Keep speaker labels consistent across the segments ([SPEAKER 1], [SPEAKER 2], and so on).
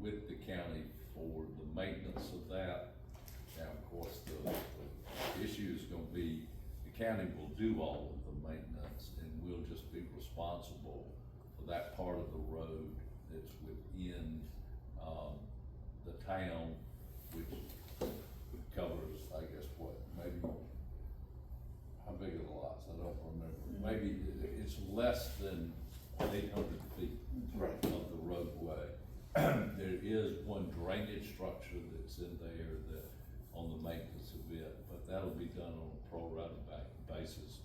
[SPEAKER 1] with the county for the maintenance of that. Now, of course, the, the issue is gonna be, the county will do all of the maintenance and we'll just be responsible for that part of the road that's within, um, the town, which covers, I guess, what, maybe, how big are the lots? I don't remember. Maybe i- it's less than eight hundred feet
[SPEAKER 2] Right.
[SPEAKER 1] of the roadway. There is one drainage structure that's in there that, on the maintenance of it, but that'll be done on a pro rata ba- basis.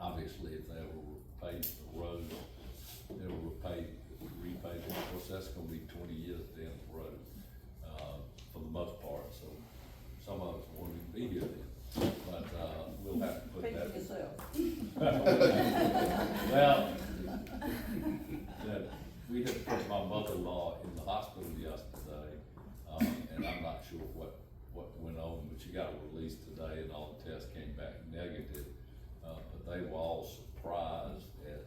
[SPEAKER 1] Obviously, if they ever repave the road, they'll repave, repave it, of course, that's gonna be twenty years down the road, uh, for the most part, so some of us won't even be here then, but, uh, we'll have to put
[SPEAKER 3] Speak
[SPEAKER 1] that.
[SPEAKER 3] for yourself.
[SPEAKER 1] Well, that, we had put my mother-in-law in the hospital yesterday, um, and I'm not sure what, what went on, but she got released today and all the tests came back negative. Uh, but they were all surprised at,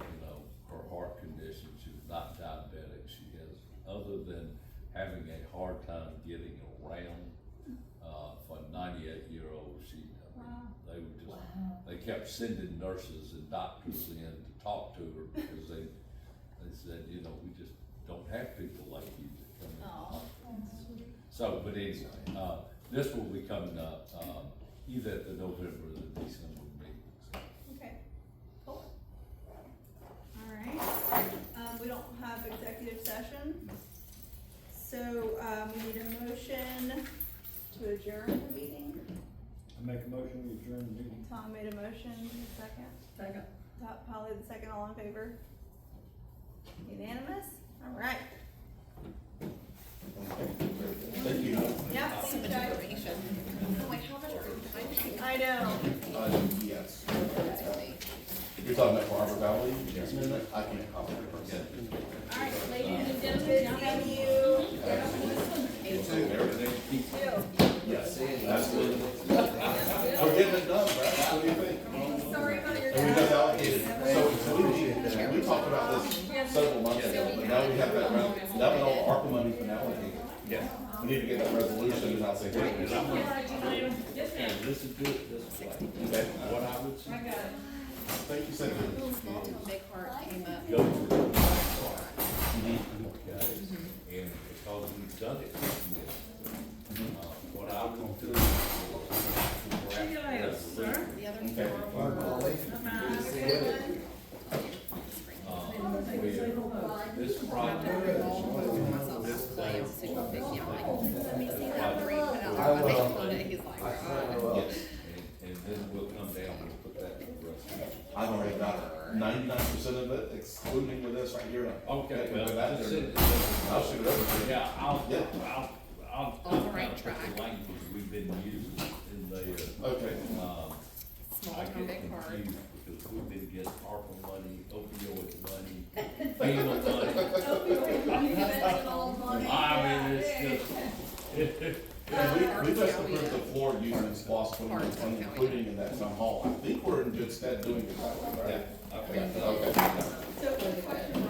[SPEAKER 1] you know, her heart condition, she was not diabetic, she has, other than having a hard time getting around, uh, for a ninety-eight-year-old, she, I mean,
[SPEAKER 4] Uh,
[SPEAKER 1] they were just they kept sending nurses and doctors in to talk to her because they, they said, you know, we just don't have people like you that come in. and
[SPEAKER 4] Aw,
[SPEAKER 1] talk." So, but anyway, uh, this will be coming up, um, either at the November or the December meetings.
[SPEAKER 4] okay, cool. All right, um, we don't have executive session, so, um, we need a motion to adjourn the meeting.
[SPEAKER 2] I make a motion, we adjourn the meeting.
[SPEAKER 4] Tom made a motion, second,
[SPEAKER 3] Second.
[SPEAKER 4] Top, Polly the second, all in favor? Unanimous? All right, yeah, thanks, guys. I know,
[SPEAKER 5] Uh, yes. You're talking about Harbor Valley? Yes. I can't comment.
[SPEAKER 4] all right, ladies and gentlemen, thank you. Two.
[SPEAKER 5] Yes, absolutely. We're getting it done, Brad. What do you think?
[SPEAKER 4] Sorry about your
[SPEAKER 5] And we just
[SPEAKER 4] dad.
[SPEAKER 5] allocated, so, so we appreciate that. We talked about this several months ago, but now we have that, re- that was all ARPA money for now, I think. Yeah. We need to get that resolution and I'll say, wait, okay.
[SPEAKER 6] What I would say.
[SPEAKER 5] Thank you, Senator.
[SPEAKER 7] Big Heart came up.
[SPEAKER 6] go to the car, you need to look at it, and because we've done it, uh, what I would do. is-
[SPEAKER 3] See you later, sir.
[SPEAKER 7] The other
[SPEAKER 5] Okay.
[SPEAKER 7] four were.
[SPEAKER 1] Um, we- This project is
[SPEAKER 7] Myself, I was super picky. I'm like, let me see that three, put it
[SPEAKER 5] I
[SPEAKER 7] on my
[SPEAKER 5] will.
[SPEAKER 7] phone, and he's like, "Uh,
[SPEAKER 1] Yes, and, and then we'll come down and put that in the rest.
[SPEAKER 5] I've already got ninety-nine percent of it excluding with this right here.
[SPEAKER 1] Okay,
[SPEAKER 5] Go
[SPEAKER 1] well,
[SPEAKER 5] back
[SPEAKER 1] that's
[SPEAKER 5] there.
[SPEAKER 1] it.
[SPEAKER 5] I'll shoot it over to you.
[SPEAKER 1] Yeah, I'll,
[SPEAKER 5] Yeah.
[SPEAKER 1] I'll, I'll.
[SPEAKER 7] On the right
[SPEAKER 1] I'll put
[SPEAKER 7] track.
[SPEAKER 1] Language we've been using in there,
[SPEAKER 5] Okay.
[SPEAKER 1] um, I
[SPEAKER 7] Small town,
[SPEAKER 1] get
[SPEAKER 7] big heart.
[SPEAKER 1] confused because we've been getting ARPA money, opioid money, FEMA money. I mean, it's just,
[SPEAKER 5] Yeah, we, we just approved the floor using lost twenty-one twenty, including in that town hall. I think we're in good stead doing it that way, right?
[SPEAKER 1] I've got
[SPEAKER 5] Okay.
[SPEAKER 4] So, question uh,